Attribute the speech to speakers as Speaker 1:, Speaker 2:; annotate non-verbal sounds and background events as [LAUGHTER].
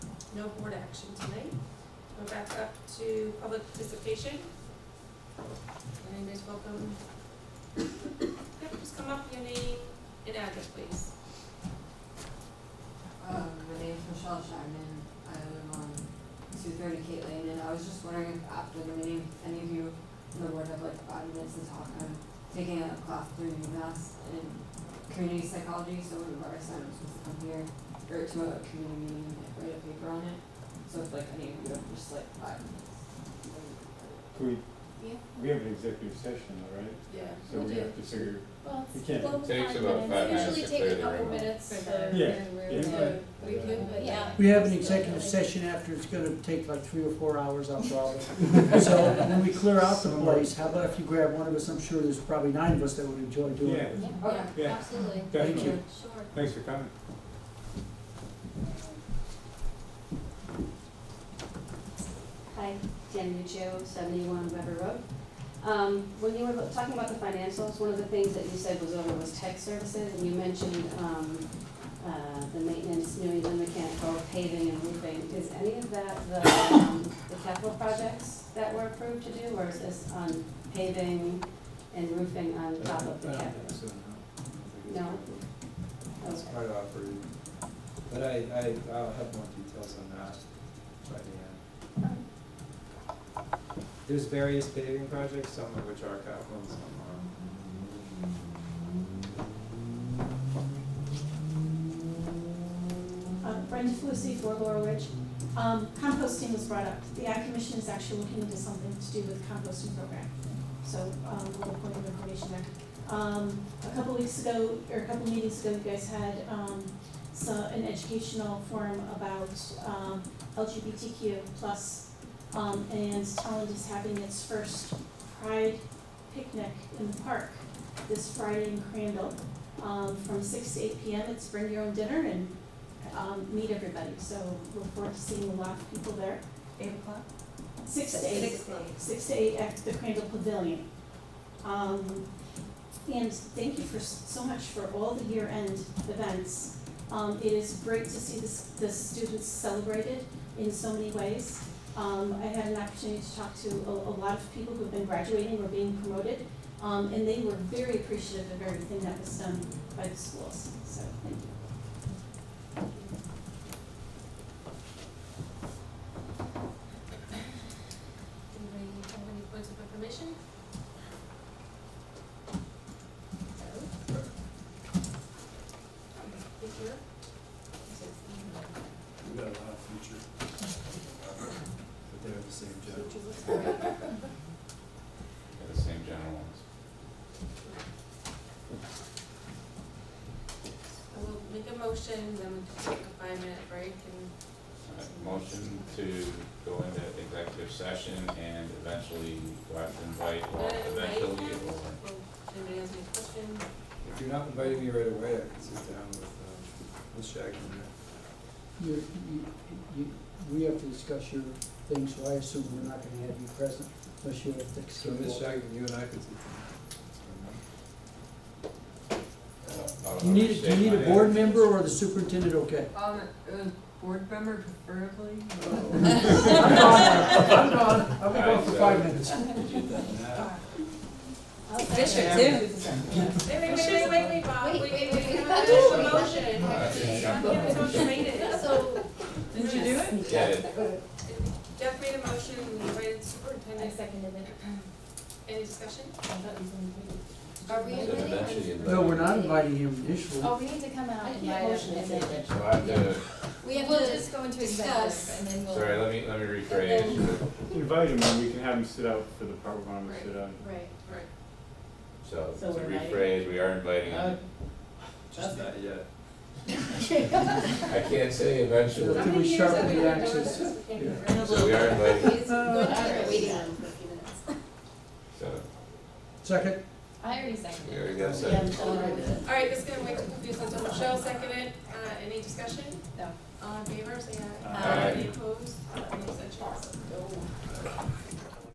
Speaker 1: no board action tonight. We're back up to public participation. And Anybody's welcome. Yep, just come up, your name and address, please.
Speaker 2: Um, my name's Michelle Shagnon, I live on two thirty Kate Lane, and I was just wondering if after the meeting, any of you in the board have like five minutes to talk, I'm taking a class through UMass in community psychology, so one of our assignments was to come here, or to a community meeting and like, write a paper on it, so if like any of you have just like five minutes.
Speaker 3: Can we,
Speaker 2: Yeah.
Speaker 3: we have an executive session, all right?
Speaker 2: Yeah.
Speaker 3: So we have to figure,
Speaker 4: Well,
Speaker 3: we can't.
Speaker 5: Takes about five minutes
Speaker 4: usually
Speaker 5: to
Speaker 4: take
Speaker 5: clear
Speaker 4: a
Speaker 5: the
Speaker 4: couple
Speaker 5: room.
Speaker 4: minutes
Speaker 1: For
Speaker 4: to.
Speaker 1: the-
Speaker 3: Yeah,
Speaker 4: to-
Speaker 3: yeah.
Speaker 4: We could, but yeah.
Speaker 6: We have an executive session after, it's gonna take like three or four hours, I'll probably. So when we clear out the place, how about if you grab one of us, I'm sure there's probably nine of us that would enjoy doing
Speaker 3: Yeah,
Speaker 6: it.
Speaker 2: Okay.
Speaker 4: Yeah,
Speaker 3: Yeah.
Speaker 4: absolutely.
Speaker 3: Thank you.
Speaker 4: Sure.
Speaker 3: thanks for coming.
Speaker 7: Hi, Jen Nuccio, 71 Weber Road. Um, When you were talking about the financials, one of the things that you said was over was tech services, and you mentioned um, uh, the maintenance, New England mechanical, paving and roofing. Is any of that the um, the capital projects that were approved to do, or is this on paving and roofing on top of the capital? No?
Speaker 8: It's part of operating, but I, I, I'll have more details on that by the end. There's various paving projects, some of which are capital and some aren't.
Speaker 9: Uh, Brenda Felicity for Laurel Ridge. Um, Composting was brought up. The Ag Commission is actually looking into something to do with the composting program. So um, a little point of information there. Um, A couple weeks ago, or a couple meetings ago, you guys had um, so- an educational forum about um, LGBTQ plus. um, And Talent is having its first Pride picnic in the park this Friday in Crandall um, from six to eight PM. It's bring your own dinner and um, meet everybody, so look forward to seeing a lot of people there.
Speaker 4: Eight o'clock?
Speaker 9: Six to eight, six to eight at the Crandall Pavilion. Um, and thank you for, s- so much for all the year-end events. Um, it is great to see this, the students celebrated in so many ways. Um, I had an opportunity to talk to a, a lot of people who've been graduating or being promoted, um, and they were very appreciative of everything that was done by the schools, so thank you.
Speaker 1: Anybody have any points of information? No? Thank you.
Speaker 8: We've got a lot of future. But they're the same job.
Speaker 1: Future looks good.
Speaker 5: They're the same general ones.
Speaker 1: I will make a motion, then we can take a five-minute break and
Speaker 5: Alright, Motion to go into executive session and eventually go out and invite, well,
Speaker 1: Invite
Speaker 5: eventually
Speaker 1: him?
Speaker 5: or
Speaker 1: Well, Anybody has any questions?
Speaker 8: If you're not inviting me right away, I can sit down with, um, with Shaggy.
Speaker 6: You, you, you, we have to discuss your thing, so I assume we're not gonna have you present unless you have to.
Speaker 8: So Miss
Speaker 6: uh,
Speaker 8: Shaggy, you and I could sit down.
Speaker 5: I don't- I don't
Speaker 6: Do you need, do you need a
Speaker 5: understand
Speaker 6: board member or the superintendent, okay?
Speaker 2: Um, it was board member preferably.
Speaker 6: I'm gone, [LAUGHS] I'm gone, I'm gonna go for five minutes.
Speaker 1: Fisher, Wait, wait, wait, wait, wait, wait, Bob, wait, wait, wait, we have an official motion.
Speaker 5: my-
Speaker 1: Jeff made his own statement.
Speaker 4: So,
Speaker 2: Did you do it?
Speaker 5: Yeah, it-
Speaker 1: Jeff made a motion, we invited superintendent,
Speaker 4: seconded it.
Speaker 1: any discussion?
Speaker 4: Are we
Speaker 5: So
Speaker 4: inviting?
Speaker 5: eventually invite-
Speaker 6: No, we're not inviting him initially.
Speaker 4: Oh, we need to come out and invite
Speaker 7: motion
Speaker 4: them.
Speaker 7: is
Speaker 5: so I have to,
Speaker 4: We have to just go into executive and then we'll.
Speaker 5: sorry, let me, let me rephrase.
Speaker 3: Invite him and we can have him sit out for the part one, we sit out.
Speaker 4: Right.
Speaker 1: Right.
Speaker 5: So to
Speaker 7: So we're inviting-
Speaker 5: rephrase, we are inviting him.
Speaker 8: Just not yet.
Speaker 5: I can't say eventually.
Speaker 6: How many we years sharpen have we the been doing axes? this?
Speaker 5: So we are inviting,
Speaker 4: He's going to
Speaker 7: Oh,
Speaker 4: start waiting on for a few minutes.
Speaker 5: so
Speaker 6: Second,
Speaker 4: I already
Speaker 5: we
Speaker 4: seconded.
Speaker 5: already got a
Speaker 7: Yeah,
Speaker 5: second.
Speaker 7: I'm sorry.
Speaker 1: All right, this is gonna make it confusing, so Michelle seconded, uh, any discussion?
Speaker 4: No.
Speaker 1: All in favor, say aye. Uh,
Speaker 5: Aye.
Speaker 1: Any opposed, any abstentions?